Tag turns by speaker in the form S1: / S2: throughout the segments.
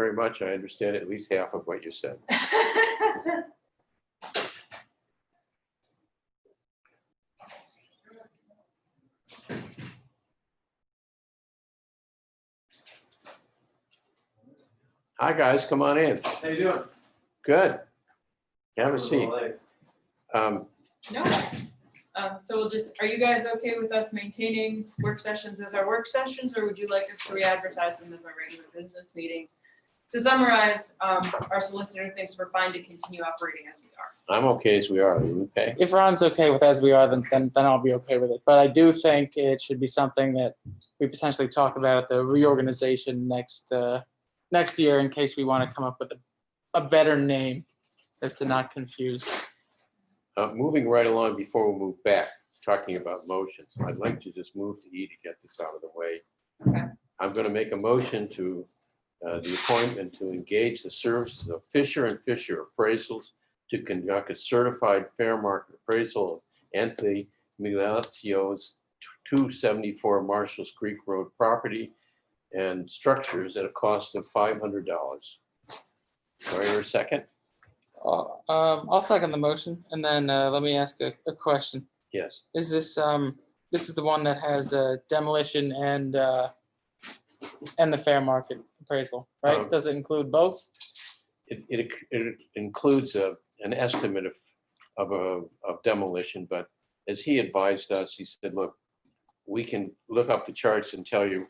S1: very much. I understand at least half of what you said. Hi, guys, come on in.
S2: How you doing?
S1: Good. Have
S2: I'm
S1: a seat. Um,
S3: No. worries. Um, so we'll just, are you guys okay with us maintaining work sessions as our work sessions, or would you like us to re-advertise them as our regular business meetings? To summarize, um, our solicitor thinks we're fine to continue operating as we are.
S1: I'm okay as we are. Are you okay?
S4: If Ron's okay with as we are, then, then, then I'll be okay with it. But I do think it should be something that we potentially talk about at the reorganization next, uh, next year in case we want to come up with a, a better name as to not confuse.
S1: Uh, moving right along before we move back, talking about motions, I'd like to just move to E to get this out of the way.
S3: Okay.
S1: I'm going to make a motion to uh, the appointment to engage the services of Fisher and Fisher appraisals to conduct a certified fair market appraisal of Anthony Migliacio's 274 Marshalls Creek Road property and structures at a cost of $500. Sorry, a second?
S4: Uh, Um, I'll second the motion and then, uh, let me ask a, a question.
S1: Yes.
S4: Is this, um, this is the one that has uh, demolition and, uh, and the fair market appraisal,
S1: Um,
S4: right? Does it include both?
S1: It, it, it includes a, an estimate of, of, a- of demolition, but as he advised us, he said, look, we can look up the charts and tell you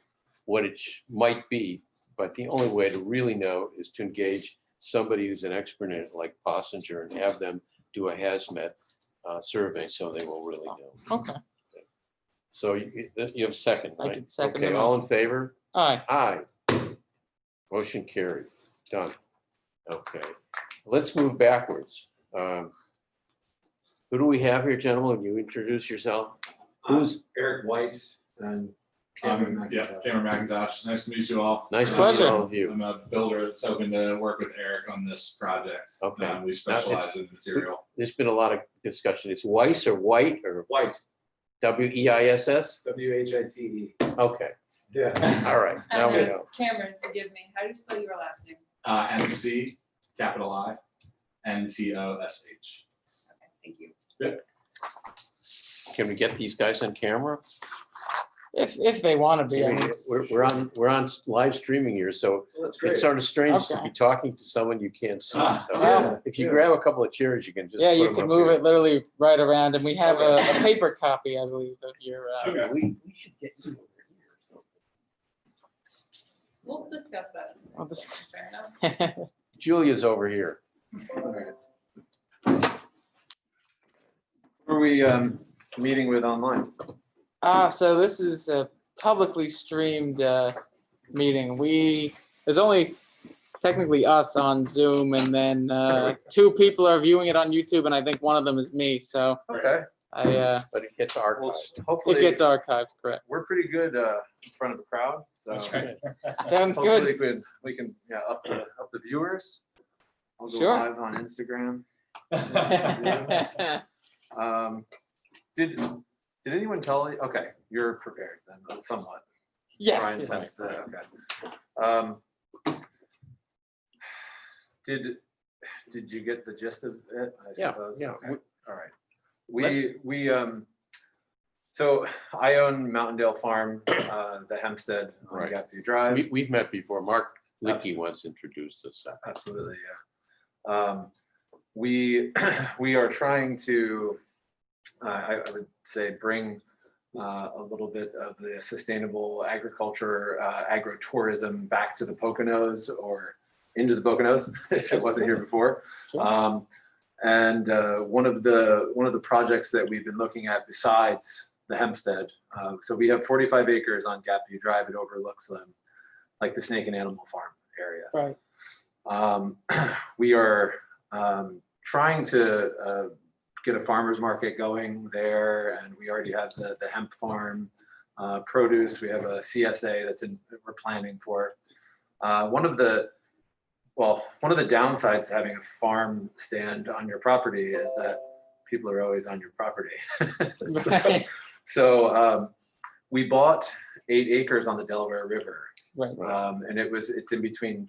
S1: what it sh- might be, but the only way to really know is to engage somebody who's an expert in it, like Bossinger, and have them do a hazmat uh, survey, so they will really know.
S4: Okay,
S1: So you, you have a second,
S4: I
S1: right?
S4: did second the
S1: Okay, all in favor?
S4: all right.
S1: Aye. Motion carried. Done. Okay, let's move backwards. Um, Who do we have here, gentlemen? You introduce yourself. Who's,
S2: Eric White and Cameron
S5: Um, yeah,
S2: McIntosh.
S5: Cameron McIntosh. Nice to meet you all. Um,
S1: nice to meet
S4: Pleasure.
S1: all of you.
S5: I'm a builder that's hoping to work with Eric on this project.
S1: Okay.
S5: Um, We specialize in material.
S1: There's been a lot of discussion. It's Weiss or White or
S2: White,
S1: W E I S S?
S2: W H I T E.
S1: Okay,
S2: Yeah.
S1: all right, now we
S3: And
S4: Uh-huh.
S3: then,
S1: know.
S3: Um, Cameron, forgive me, how do you spell your last name?
S5: Uh, MC, capital I, N T O S H.
S3: Okay, Thank you.
S1: Can we get these guys on camera?
S4: If, if they want to be, I mean,
S1: We're, we're on, we're on live streaming here, so
S2: Well, that's great.
S1: it's sort of strange to
S4: Okay.
S1: be talking to someone you can't see.
S5: Ah.
S1: So
S2: Yeah,
S1: If you
S2: yeah.
S1: grab a couple of chairs, you can just.
S4: Yeah,
S1: put
S4: you
S1: 'em
S4: can
S1: up
S4: move
S1: here.
S4: it literally right around, and we have a, a paper copy, I believe, of your, uh,
S5: Okay.
S1: Oh, We, we should get you over here or something.
S3: We'll discuss that. in the
S4: I'll
S3: next
S4: discuss
S3: session, fair enough.
S1: Julia's over here.
S2: Who Are we, um, meeting with online?
S4: ah, so this is a publicly streamed, uh, meeting. We, there's only technically us on Zoom, and then, uh, two people are viewing it on YouTube, and I think one of them is me, so
S2: Okay,
S4: I, uh,
S1: But it gets
S2: well,
S1: archived.
S4: it
S2: hopefully,
S4: gets archived, correct.
S2: we're pretty good, uh, in front of a crowd, so.
S5: That's right.
S4: Sounds good.
S2: Hopefully, we can, we can, yeah, up the, up the viewers. I'll go
S4: Sure.
S2: live on Instagram. Um, did, did anyone tell, you? okay, you're prepared then somewhat.
S4: Yes,
S2: Brian
S4: yes.
S2: sensed that, okay. Um, Did, did you get the gist of it? I
S1: Yeah,
S2: suppose?
S1: yeah.
S2: Okay, All right. We, we, um, so I own Mountaindale Farm, uh, the Hempstead on
S1: Right.
S2: Gapview
S1: We,
S2: Drive.
S1: we've met before. Mark Licky once introduced us. uh,
S2: Absolutely, yeah. Um, We, we are trying to, uh, I I would say, bring uh, a little bit of the sustainable agriculture, uh, agrotourism back to the Poconos or into the Poconos, if it wasn't here before.
S4: Sure.
S2: Um, And uh, one of the, one of the projects that we've been looking at besides the Hempstead, uh, so we have 45 acres on Gapview Drive. It overlooks them, like the Snake and Animal Farm area.
S4: Right.
S2: Um, we are um, trying to uh, get a farmer's market going there, and we already have the, the hemp farm uh, produce. We have a CSA that's in, that we're planning for. Uh, one of the, well, one of the downsides to having a farm stand on your property is that people are always on your property. So-
S4: Right,
S2: So um, we bought eight acres on the Delaware River,
S4: right.
S1: Right.
S2: um, and it was, it's in between